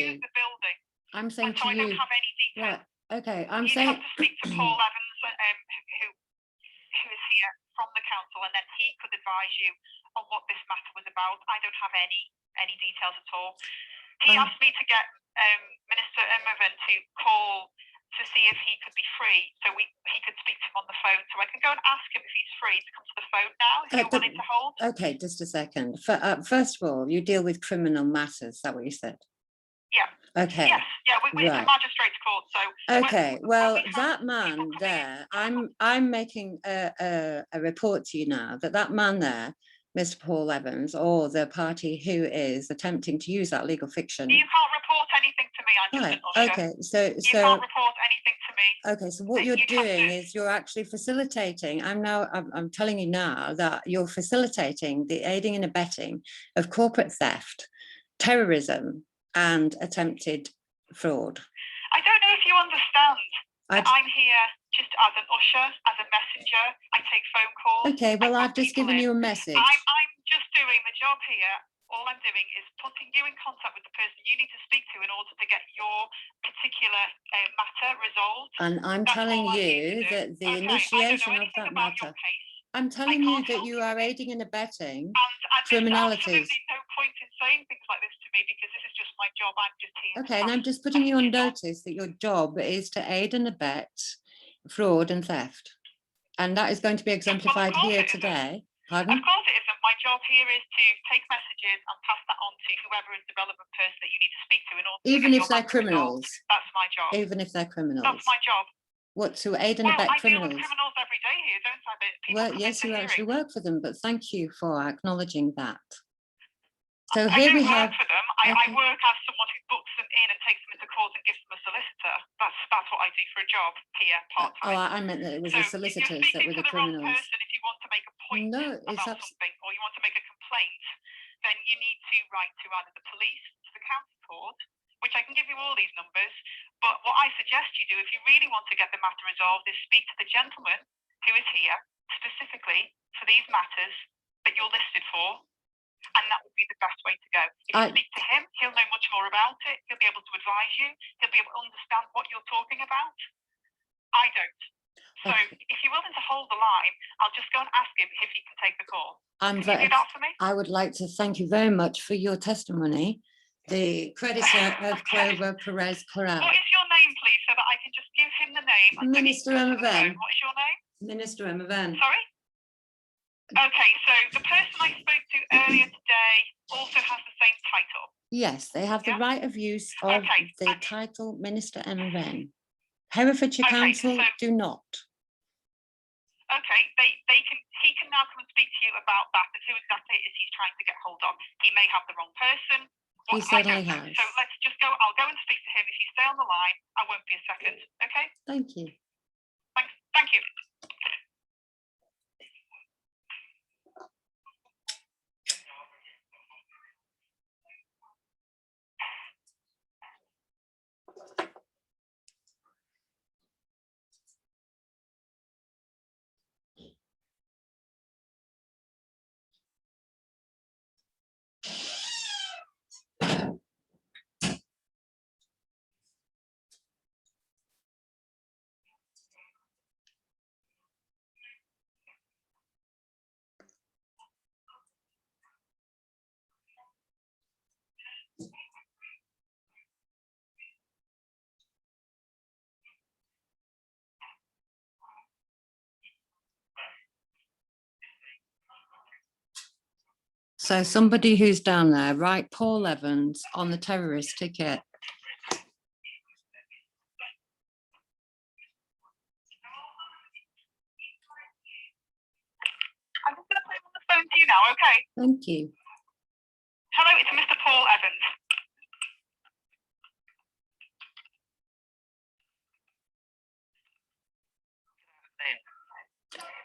use the building. I'm And saying so to I don't you, have any right, details. okay, I'm You'd saying, have to speak to Paul Evans, um, who, who is here from the council, and then he could advise you on what this matter was about. I don't have any, any details at all. He Um, asked me to get, um, Minister Imogen to call to see if he could be free, so we, he could speak to him on the phone. So I can go and ask him if he's free to come to the phone now, if Uh, you're but- willing to hold. okay, just a second. Fir- uh, First of all, you deal with criminal matters, is that what you said? Yeah. Okay, Yes, yeah, we, we, it's a right. magistrate's court, so okay, when well, we have that people man coming in- uh, there, I'm, I'm making a, a, a report to you now that that man there, Mr. Paul Evans, or the party who is attempting to use that legal fiction. you can't report anything to me, I'm just Um, Right, an usher. okay, so, You so. can't report anything to me. Okay, so what that you're you'd have doing to- is you're actually facilitating, I'm now, I'm, I'm telling you now that you're facilitating the aiding and abetting of corporate theft, terrorism and attempted fraud. I don't know if you understand. I- that I'm here just as an usher, as a messenger. I take phone calls. Okay, well, put I've just people given in. you a message. I'm, I'm just doing the job here. All I'm doing is putting you in contact with the person you need to speak to in order to get your particular uh, matter resolved. And I'm That's telling all I need to you do. that the Okay, initiation I of don't know anything that about your matter, case, I'm telling you can't that help you are aiding and abetting. and, and Criminalities. There's absolutely no point in saying things like this to me because this is just my job. I'm just here. to Okay, and pass I'm just putting you on messages on. notice that your job is to aid and abet fraud and theft. And that is going to be exemplified course here it is. today. Of Pardon? course it isn't. My job here is to take messages and pass that on to whoever is the relevant person that you need to speak to in order to Even get if your they're matter resolved. criminals, That's my job. even if they're criminals. That's my job. What, to aid and Well, I abet deal with criminals? criminals every day here, don't I? But people Well, come yes, into you actually hearing. work for them, but thank you for acknowledging that. So I here don't we work have, for them. I, I Okay. work as someone who books them in and takes them into court and gives them a solicitor. That's that's what I do for a job here, oh, part time. I I meant that it was so the if solicitors you're that speaking were the to the wrong criminals. person, if you want to make a point No, it's about abs- something or you want to make a complaint, then you need to write to either the police, to the county court, which I can give you all these numbers. But what I suggest you do, if you really want to get the matter resolved, is speak to the gentleman who is here specifically for these matters that you're listed for. And that would be the best way to go. If you I- speak to him, he'll know much more about it. He'll be able to advise you. He'll be able to understand what you're talking about. I don't. So Okay. if you're willing to hold the line, I'll just go and ask him if he can take the call. I'm Can you do very, that for me? I would like to thank you very much for your testimony. The creditor of Okay. Clover Perez Corral. What is your name, please, so that I can just give him the name? and then he Minister can come to the Imogen. phone. What is your name? Minister Emma Van. Sorry? Okay, so the person I spoke to earlier today also has the same title. Yes, they have the Yeah. right of use of Okay, the okay. title Minister Emma Van. Herefordshire Okay, Council so- do not. Okay, they, they can he can now come and speak to you about that, but who exactly it is he's trying to get hold of. He may have the wrong person. He What- I certainly don't know. has. So let's just go, I'll go and speak to him. If you stay on the line, I won't be a second, okay? Thank you. Thanks, thank you. So somebody who's down there, right, Paul Evans on the terrorist ticket. I'm just going to put him on the phone to you now, okay? Thank you. Hello, it's Mr. Paul Evans.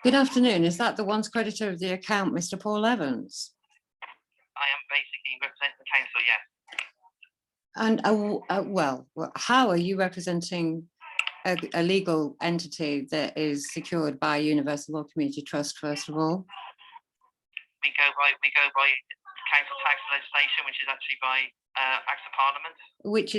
Good afternoon. Is that the once creditor of the account, Mr. Paul Evans? I am basically representing the council, yes. And, uh, w- uh, well, wha- how are you representing a, a legal entity that is secured by Universal Law Community Trust, first of all? We go by, we go by council tax legislation, which is actually by uh, Acts of Parliament. which